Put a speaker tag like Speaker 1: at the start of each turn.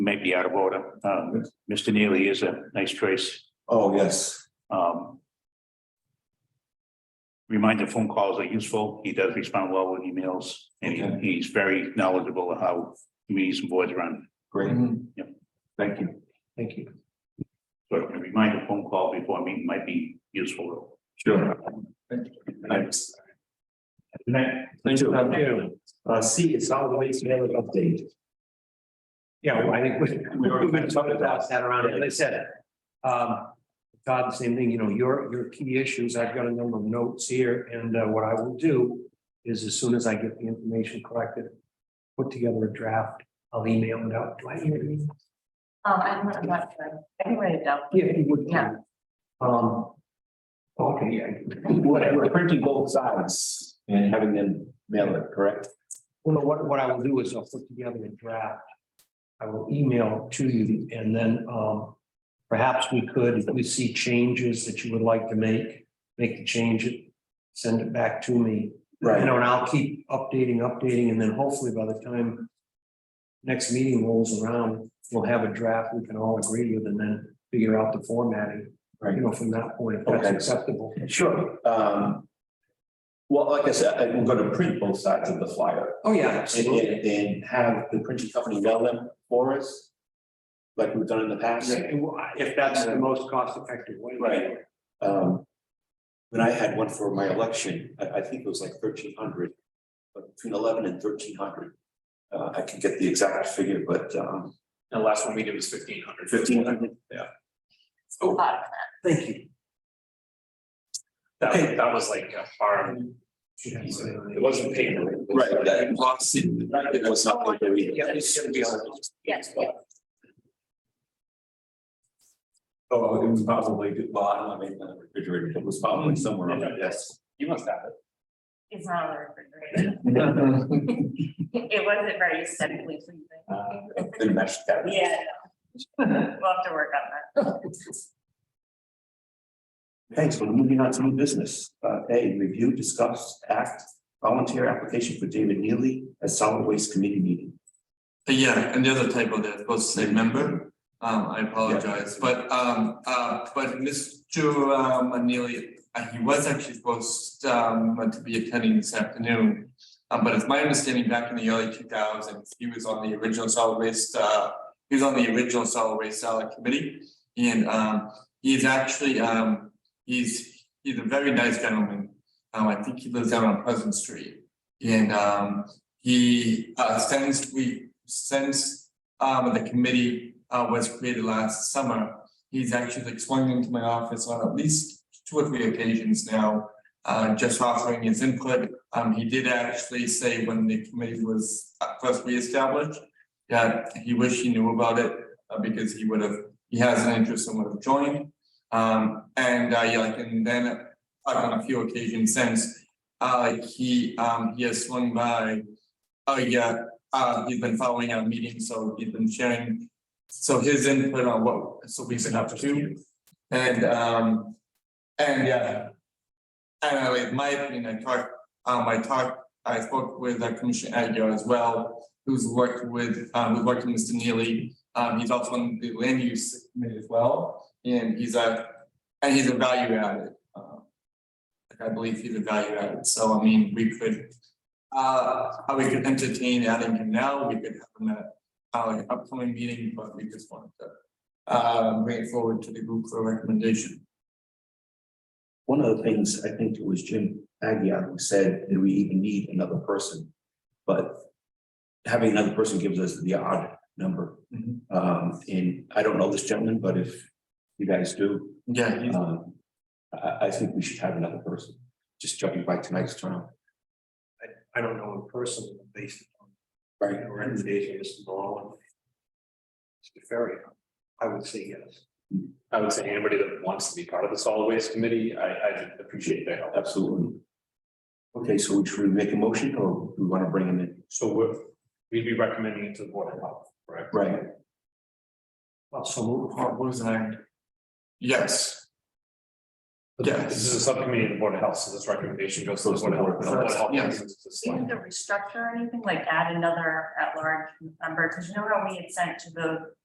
Speaker 1: might be out of order. Um, Mr. Neely is a nice choice.
Speaker 2: Oh, yes,
Speaker 1: Um. Reminder phone calls are useful. He does respond well with emails and he-
Speaker 2: Okay.
Speaker 1: he's very knowledgeable of how meetings and boards run.
Speaker 2: great.
Speaker 1: Yep.
Speaker 2: Thank you.
Speaker 3: Thank you.
Speaker 1: So a reminder phone call before a meeting might be useful.
Speaker 2: Sure. Thanks.
Speaker 1: Good night.
Speaker 2: Thank you.
Speaker 3: Uh, C is solid waste management update. Yeah, well, I think we, we were going to talk about that around, as I said. Um, Todd, same thing, you know, your, your key issues, I've got a number of notes here, and uh, what I will do is as soon as I get the information collected, put together a draft, I'll email it out. Do I hear you?
Speaker 4: Um, I'm not, I'm not sure. I can write it down.
Speaker 3: Yeah, you would.
Speaker 4: Yeah.
Speaker 3: Um. Okay, I-
Speaker 2: Whatever, printing both sides and having them mail it, correct?
Speaker 3: Well, no, what, what I will do is I'll put together a draft. I will email it to you and then, um, perhaps we could, if we see changes that you would like to make, make the change, send it back to me. You know, and I'll keep updating, updating, and then hopefully by the time next meeting rolls around, we'll have a draft we can all agree with and then figure out the formatting, you
Speaker 2: Right.
Speaker 3: know, from that point, if that's
Speaker 2: Okay.
Speaker 3: acceptable.
Speaker 2: Sure. Um. Well, like I said, I'm gonna print both sides of the flyer
Speaker 3: Oh, yeah,
Speaker 2: and,
Speaker 3: absolutely.
Speaker 2: and and have the printing company mail them for us. Like we've done in the past.
Speaker 3: Yeah, and wh- If that's the most cost effective way.
Speaker 2: Right. Um. When I had one for my election, I, I think it was like thirteen hundred, but between eleven and thirteen hundred. Uh, I can get the exact figure, but, um,
Speaker 5: The last one we did was fifteen hundred.
Speaker 2: fifteen hundred.
Speaker 4: A lot.
Speaker 3: Thank you.
Speaker 5: That, was- that was like a farm, it wasn't paid.
Speaker 2: Right, that lost in, it was not like that either.
Speaker 3: Yeah, it's gonna be on.
Speaker 4: Yes, yes.
Speaker 2: Oh, it was probably, well, I don't know, maybe not in the refrigerator, it was probably somewhere on my desk.
Speaker 5: You must have it.
Speaker 4: It's not on the refrigerator. It wasn't very aesthetically pleasing.
Speaker 2: Uh, Then match that.
Speaker 4: Yeah. no. We'll have to work on that.
Speaker 2: Thanks, we're moving on to new business. Uh, A, review, discuss, act, volunteer application for David Neely at solid waste committee meeting.
Speaker 6: Uh, Yeah, and the other typo there, supposed to say member, um, I apologize, but, um, uh, but Mr. uh, Manili, uh, he was actually supposed, um, to be attending this afternoon. Um, but it's my understanding back in the early two thousands, he was on the original solid waste, uh, he was on the original solid waste salad committee. And, um, he's actually, um, he's, he's a very nice gentleman, um, I think he lives down on Pleasant Street. And, um, he, uh, since we, since, um, the committee, uh, was created last summer, he's actually like swung into my office on at least two or three occasions now, uh, just offering his input. Um, he did actually say when the committee was uh, first reestablished, that he wished he knew about it, uh, because he would have, he has an interest and would have joined. Um, and, uh, yeah, like, and then uh, on a few occasions since, uh, he, um, he has swung by. Oh, yeah, uh, he's been following our meetings, so he's been sharing, so his input on what, so we've been up to. And, um, and yeah. And I, like, my opinion, I talked, um, I talked, I spoke with uh, Commissioner Aguirre as well, who's worked with, um, who worked with Mr. Neely. Um, he's also on the land use committee as well, and he's a, and he's a value added, uh, I believe he's a value added, so I mean, we could. Uh, uh, we could entertain adding him now, we could have him at uh like an upcoming meeting, but we just wanted to. Uh, bring it forward to the group for recommendation.
Speaker 2: One of the things, I think it was Jim Agia who said, do we even need another person? But having another person gives us the odd number.
Speaker 6: Mhm.
Speaker 3: Mm-hmm.
Speaker 2: Um, and I don't know this gentleman, but if you guys do,
Speaker 6: Yeah, he's-
Speaker 2: um, I, I think we should have another person, just jumping by tonight's turn.
Speaker 3: I don't know in person, but based on
Speaker 2: Right.
Speaker 3: the recommendation, of Mr. Malone. Mr. Ferry, I would say yes.
Speaker 5: I would say anybody that wants to be part of the solid waste committee, I, I appreciate their help.
Speaker 2: Absolutely. Okay, so should we make a motion or we want to bring him in?
Speaker 5: So we're, we'd be recommending it to the board of health, right?
Speaker 2: Right,
Speaker 3: Well, so move.
Speaker 6: oh, what was I? Yes. Yeah.
Speaker 5: This is a subcommittee of the Board of Health, so this recommendation goes to the Board of Health. and the Board of Health
Speaker 6: Yeah.
Speaker 5: makes it to the
Speaker 4: Even
Speaker 5: select.
Speaker 4: to restructure or anything, like add another at-large member, because you know how we had sent to the